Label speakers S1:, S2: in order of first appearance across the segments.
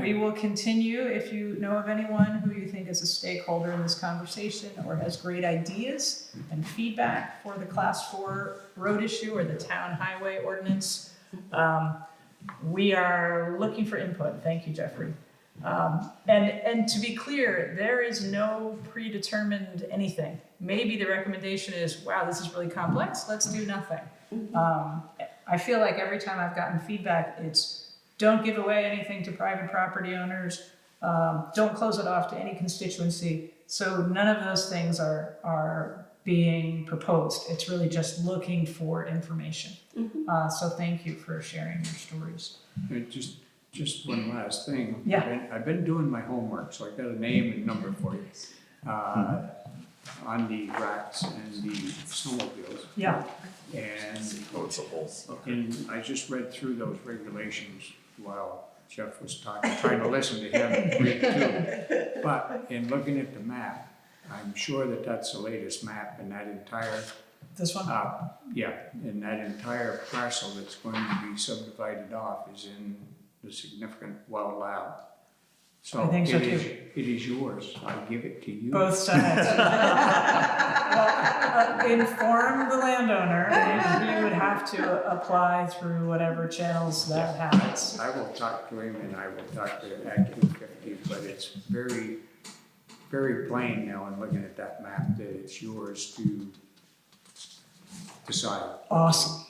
S1: we will continue, if you know of anyone who you think is a stakeholder in this conversation or has great ideas and feedback for the class four road issue or the town highway ordinance, um, we are looking for input, thank you Jeffrey. Um, and, and to be clear, there is no predetermined anything. Maybe the recommendation is, wow, this is really complex, let's do nothing. Um, I feel like every time I've gotten feedback, it's don't give away anything to private property owners, um, don't close it off to any constituency. So none of those things are, are being proposed. It's really just looking for information. Uh, so thank you for sharing your stories.
S2: Uh, Just, just one last thing.
S1: Yeah.
S2: I've been- I've been doing my homework, so I got a name and number for you. Uh, On the racks and the snowmobiles.
S1: Yeah,
S2: And,
S3: Oh, coachable.
S2: and I just read through those regulations while Jeff was talking, trying to listen to him and read too. But in looking at the map, I'm sure that that's the latest map and that entire
S1: this one?
S2: uh, yeah, and that entire parcel that's going to be subdivided off is in the significant well lab. So
S1: I think
S2: it
S1: so
S2: is,
S1: too.
S2: it is yours, I give it to you.
S1: Both sides. Well, uh, Inform the landowner, and he would have to apply through whatever channels that happens.
S2: I will talk to him and I will talk to Act two fifty, but it's very, very plain now in looking at that map that it's yours to decide.
S1: Awesome.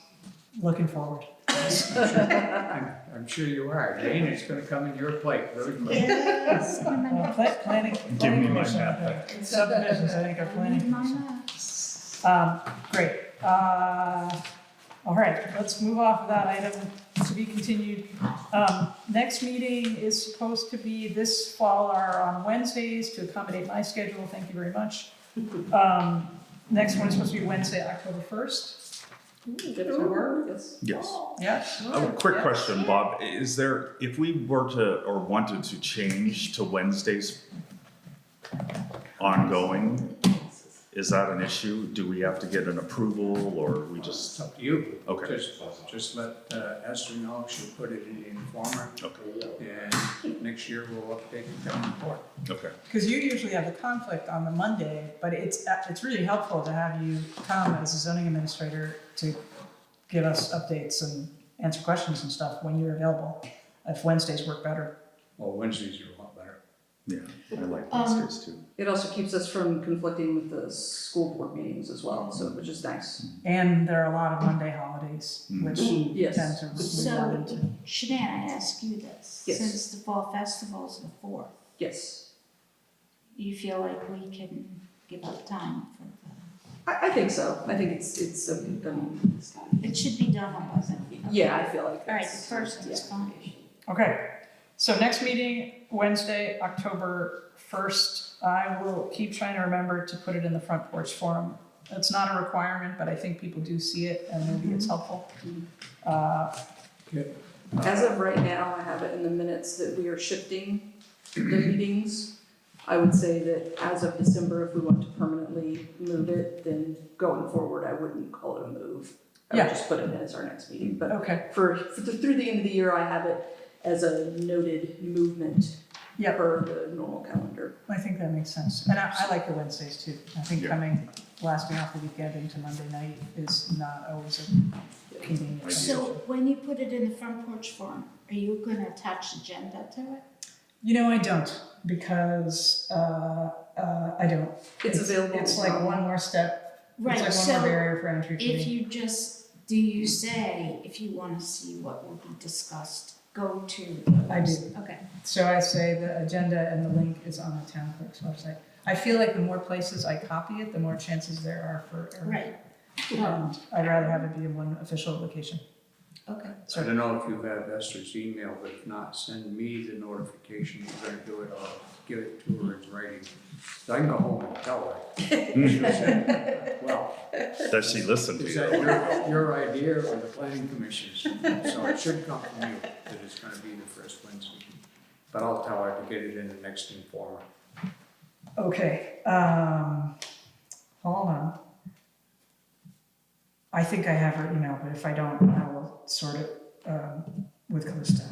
S1: Looking forward.
S2: I'm, I'm sure you are, Jane, it's gonna come in your plate really quick.
S1: Uh, pla- Planning.
S3: Give me my
S1: planning
S3: map
S1: commission, Subdivisions, I think are planning. commission. Um, great. Uh, all right, let's move off of that item to be continued. Um, next meeting is supposed to be this fall or on Wednesdays to accommodate my schedule. Thank you very much. Um, next one is supposed to be Wednesday, October first.
S3: Yes.
S1: Yes.
S3: A quick
S1: Oh, Yeah.
S3: question, Bob. Is there, if we were to, or wanted to change to Wednesdays ongoing, is that an issue? Do we have to get an approval or we
S2: It's
S3: just,
S2: up to you.
S3: Okay.
S2: Just, just let uh, Esther know, she'll put it in the informer.
S3: Okay.
S2: And next year we'll update the town report.
S3: okay,
S1: Because you usually have a conflict on the Monday, but it's, uh, it's really helpful to have you come as a zoning administrator to give us updates and answer questions and stuff when you're available, if Wednesdays work better.
S2: Well, Wednesdays are a lot better.
S3: yeah, I like
S4: Um,
S3: Wednesdays too.
S4: It also keeps us from conflicting with the school board meetings as well, so which is nice.
S1: And there are a lot of Monday holidays, which tend
S4: Yes,
S1: to, we
S5: So,
S1: wanted to.
S5: Shanann, I ask you this,
S4: Yes.
S5: since the fall festival's the fourth,
S4: yes.
S5: you feel like we can give up time for the,
S4: I, I think so. I think it's, it's, um, um,
S5: it should be done on Monday.
S4: yeah, I feel like
S5: All right, the
S4: that's-
S5: first
S4: yeah.
S5: is fine.
S1: Okay, so next meeting, Wednesday, October first. I will keep trying to remember to put it in the front porch forum. It's not a requirement, but I think people do see it and maybe it's helpful. Uh,
S4: As of right now, I have it in the minutes that we are shifting the meetings. I would say that as of December, if we want to permanently move it, then going forward, I wouldn't call it a move. I
S1: Yeah.
S4: would just put it in as our next meeting, but
S1: Okay,
S4: for, for the- through the end of the year, I have it as a noted movement
S1: Yeah.
S4: per the normal calendar.
S1: I think that makes sense. And I, I like the Wednesdays too. I think
S3: Yeah.
S1: coming, lasting off the weekend into Monday night is not always a convenient
S3: Ideal.
S1: thing.
S5: So when you put it in the front porch forum, are you gonna attach agenda to it?
S1: You know, I don't, because, uh, uh, I don't.
S4: It's available.
S1: It's like one more step, it's
S5: Right,
S1: like one more
S5: so
S1: barrier for entry for
S5: if
S1: me.
S5: you just, do you say, if you wanna see what will be discussed, go to the.
S1: I do.
S5: Okay,
S1: So I say the agenda and the link is on the town clerk's website. I feel like the more places I copy it, the more chances there are for error.
S5: right,
S1: Um, I'd rather have it be in one official location.
S5: okay.
S2: I don't know if you have Esther's email, but if not, send me the notification, we're gonna do it, I'll give it to her in writing. So I can go home and tell her. Well,
S3: Does she listen to
S2: is
S3: you?
S2: that your, your idea or the planning commission's? So it should come from you that it's gonna be the first Wednesday. But I'll tell her to get it in the next informer.
S1: Okay, um, hold on. I think I have her email, but if I don't, I will sort it, um, with Calista.